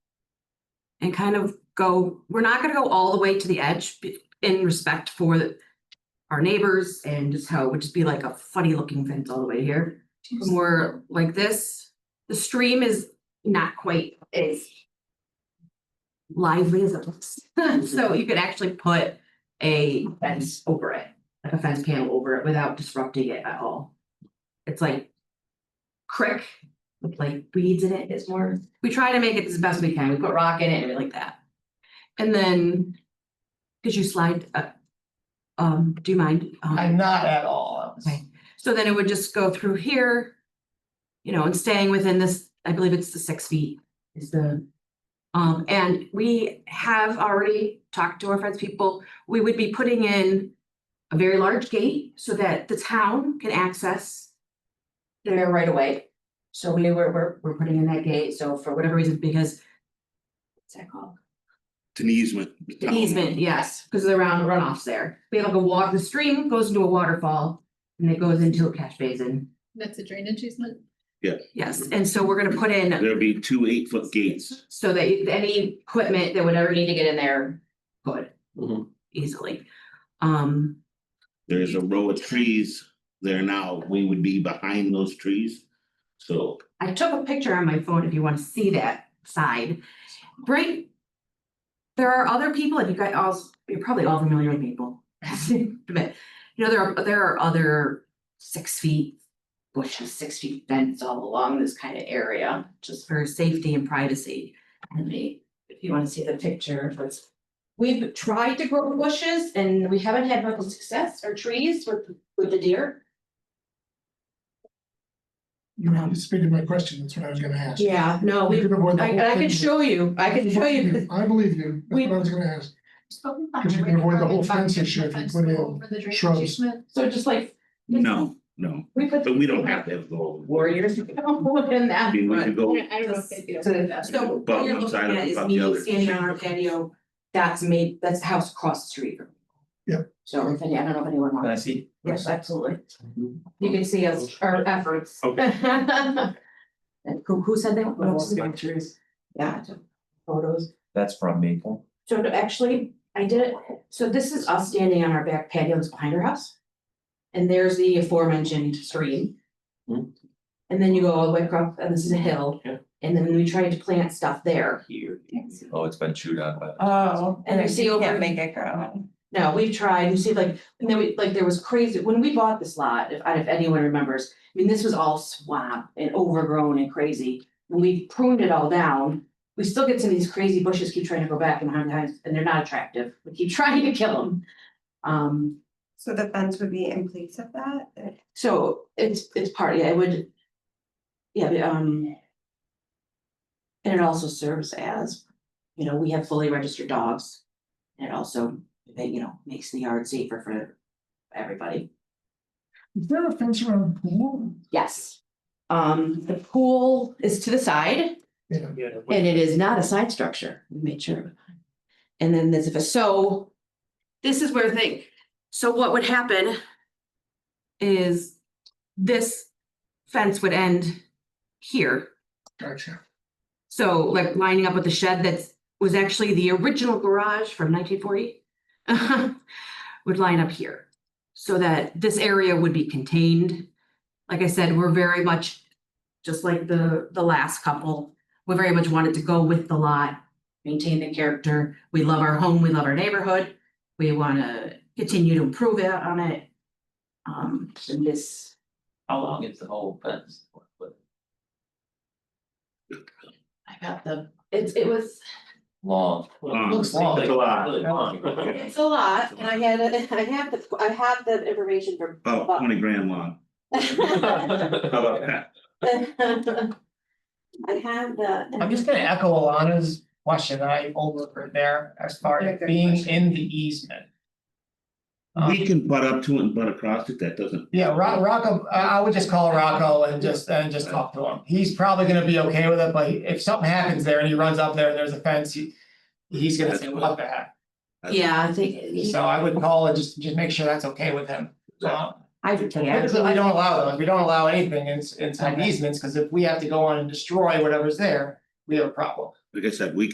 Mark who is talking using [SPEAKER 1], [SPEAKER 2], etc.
[SPEAKER 1] and kind of go, we're not gonna go all the way to the edge be- in respect for the- our neighbors and just how it would just be like a funny looking fence all the way here. More like this, the stream is not quite as lively as it looks. So you could actually put a fence over it, like a fence panel over it without disrupting it at all. It's like crick with like weeds in it is more, we try to make it as best we can. We put rock in it and we like that. And then, could you slide, uh, um, do you mind? um,
[SPEAKER 2] I'm not at all.
[SPEAKER 1] Okay. So then it would just go through here. You know, and staying within this, I believe it's the six feet is the. Um, and we have already talked to our friends, people, we would be putting in. A very large gate so that the town can access. Their right away. So we were, we're, we're putting in that gate, so for whatever reason, because. What's that called?
[SPEAKER 3] It's an easement.
[SPEAKER 1] An Easement, yes, because of the round runoffs there. We have like a walk, the stream goes into a waterfall and it goes into a catch basin.
[SPEAKER 4] That's a drainage easement?
[SPEAKER 1] Yes, and so we're gonna put in
[SPEAKER 3] There'll be two eight foot gates.
[SPEAKER 1] so that you- any equipment that would ever need to get in there could
[SPEAKER 3] There
[SPEAKER 1] easily. Um,
[SPEAKER 3] is a row of trees there now. We would be behind those trees. So
[SPEAKER 1] I took a picture on my phone if you wanna see that side. Right? There are other people, and you guys all, you're probably all familiar with Maple. But, You know, there are, there are other six feet bushes, six feet fence all along this kind of area, just for safety and privacy. Let me, if you wanna see the picture, let We've tried to grow bushes and we haven't had much success or trees with, with the deer.
[SPEAKER 2] You know, you speaking my question, that's what I was gonna ask.
[SPEAKER 1] Yeah, no,
[SPEAKER 2] We
[SPEAKER 1] we,
[SPEAKER 2] can avoid the
[SPEAKER 1] I,
[SPEAKER 2] whole
[SPEAKER 1] I
[SPEAKER 2] thing.
[SPEAKER 1] can show you, I can show you, 'cause
[SPEAKER 2] I believe you, that's
[SPEAKER 1] We-
[SPEAKER 2] what I was gonna ask, Because you can avoid the whole fence issue if you put in shrubs.
[SPEAKER 1] so just like.
[SPEAKER 3] no, no,
[SPEAKER 1] We put.
[SPEAKER 3] but we don't have to have the whole.
[SPEAKER 1] Warriors, in
[SPEAKER 3] I
[SPEAKER 1] that.
[SPEAKER 3] mean, we
[SPEAKER 1] but-
[SPEAKER 3] could go,
[SPEAKER 4] I don't know if they'd be
[SPEAKER 1] So
[SPEAKER 4] okay with that.
[SPEAKER 1] so
[SPEAKER 3] About
[SPEAKER 1] what you're
[SPEAKER 3] one
[SPEAKER 1] looking
[SPEAKER 3] side of
[SPEAKER 1] at
[SPEAKER 3] it,
[SPEAKER 1] is
[SPEAKER 3] about the
[SPEAKER 1] me
[SPEAKER 3] other.
[SPEAKER 1] standing on our patio, that's made, that's the house across the street. from me.
[SPEAKER 2] Yep.
[SPEAKER 1] So if any, I don't know if anyone
[SPEAKER 5] Can I
[SPEAKER 1] wants,
[SPEAKER 5] see?
[SPEAKER 1] yes, absolutely. You can see us, our efforts.
[SPEAKER 3] Okay.
[SPEAKER 1] And who, who said they? want- Yeah, I took photos.
[SPEAKER 5] That's from Maple.
[SPEAKER 1] So to actually, I did, so this is us standing on our back patio that's behind our house. And there's the aforementioned stream.
[SPEAKER 5] Hmm.
[SPEAKER 1] And then you go all the way across, and this is a hill.
[SPEAKER 5] Yeah.
[SPEAKER 1] And then we tried to plant stuff there.
[SPEAKER 5] Oh, it's been chewed on by.
[SPEAKER 6] Oh,
[SPEAKER 1] And
[SPEAKER 6] and
[SPEAKER 1] you see
[SPEAKER 6] you
[SPEAKER 1] over-
[SPEAKER 6] can't make it grow.
[SPEAKER 1] No, we've tried, you see like, and then we, like, there was crazy, when we bought this lot, if, if anyone remembers, I mean, this was all swamp and overgrown and crazy. And we pruned it all down, we still get some of these crazy bushes, keep trying to go back and behind times, and they're not attractive, we keep trying to kill them. Um,
[SPEAKER 6] So the fence would be in place of that?
[SPEAKER 1] so it's, it's part, yeah, it would. Yeah, the, um. And it also serves as, you know, we have fully registered dogs. And it also, they, you know, makes the yard safer for everybody.
[SPEAKER 2] is there a fence around the pool?
[SPEAKER 1] Yes. Um, the pool is to the side
[SPEAKER 2] Yeah,
[SPEAKER 1] and it is not a side structure. We made sure. And then there's, a so. This is where the thing, so what would happen? Is this fence would end here.
[SPEAKER 2] gotcha,
[SPEAKER 1] So like lining up with the shed that's, was actually the original garage from nineteen forty. Would line up here, so that this area would be contained. Like I said, we're very much, just like the, the last couple, we very much wanted to go with the lot. Maintain the character, we love our home, we love our neighborhood, we wanna continue to improve it on it. Um, and this,
[SPEAKER 5] How long is the whole fence?
[SPEAKER 1] I got the, it's, it was
[SPEAKER 5] Long.
[SPEAKER 3] Long.
[SPEAKER 5] Looks long.
[SPEAKER 3] It's a lot.
[SPEAKER 5] Really long.
[SPEAKER 6] It's a lot, and I had, it- I have the, I have the information for.
[SPEAKER 3] about oh, twenty grand long. How about that?
[SPEAKER 6] I have the.
[SPEAKER 7] I'm just gonna echo Alana's question that I overheard there as far as being in the easement. Um,
[SPEAKER 3] We can butt up to it and butt across it. That doesn't.
[SPEAKER 7] Yeah, Ro- Rocco, I I would just call Rocco and just and just talk to him. He's probably gonna be okay with it, but if something happens there and he runs up there and there's a fence, he. He's gonna say, what the heck?
[SPEAKER 1] Yeah, I think.
[SPEAKER 7] So I would call and just just make sure that's okay with him. Um,
[SPEAKER 1] I
[SPEAKER 7] Typically, we don't allow those. We don't allow anything in inside easements, because if we have to go on and destroy whatever's there, we have a problem.
[SPEAKER 3] Like I said, we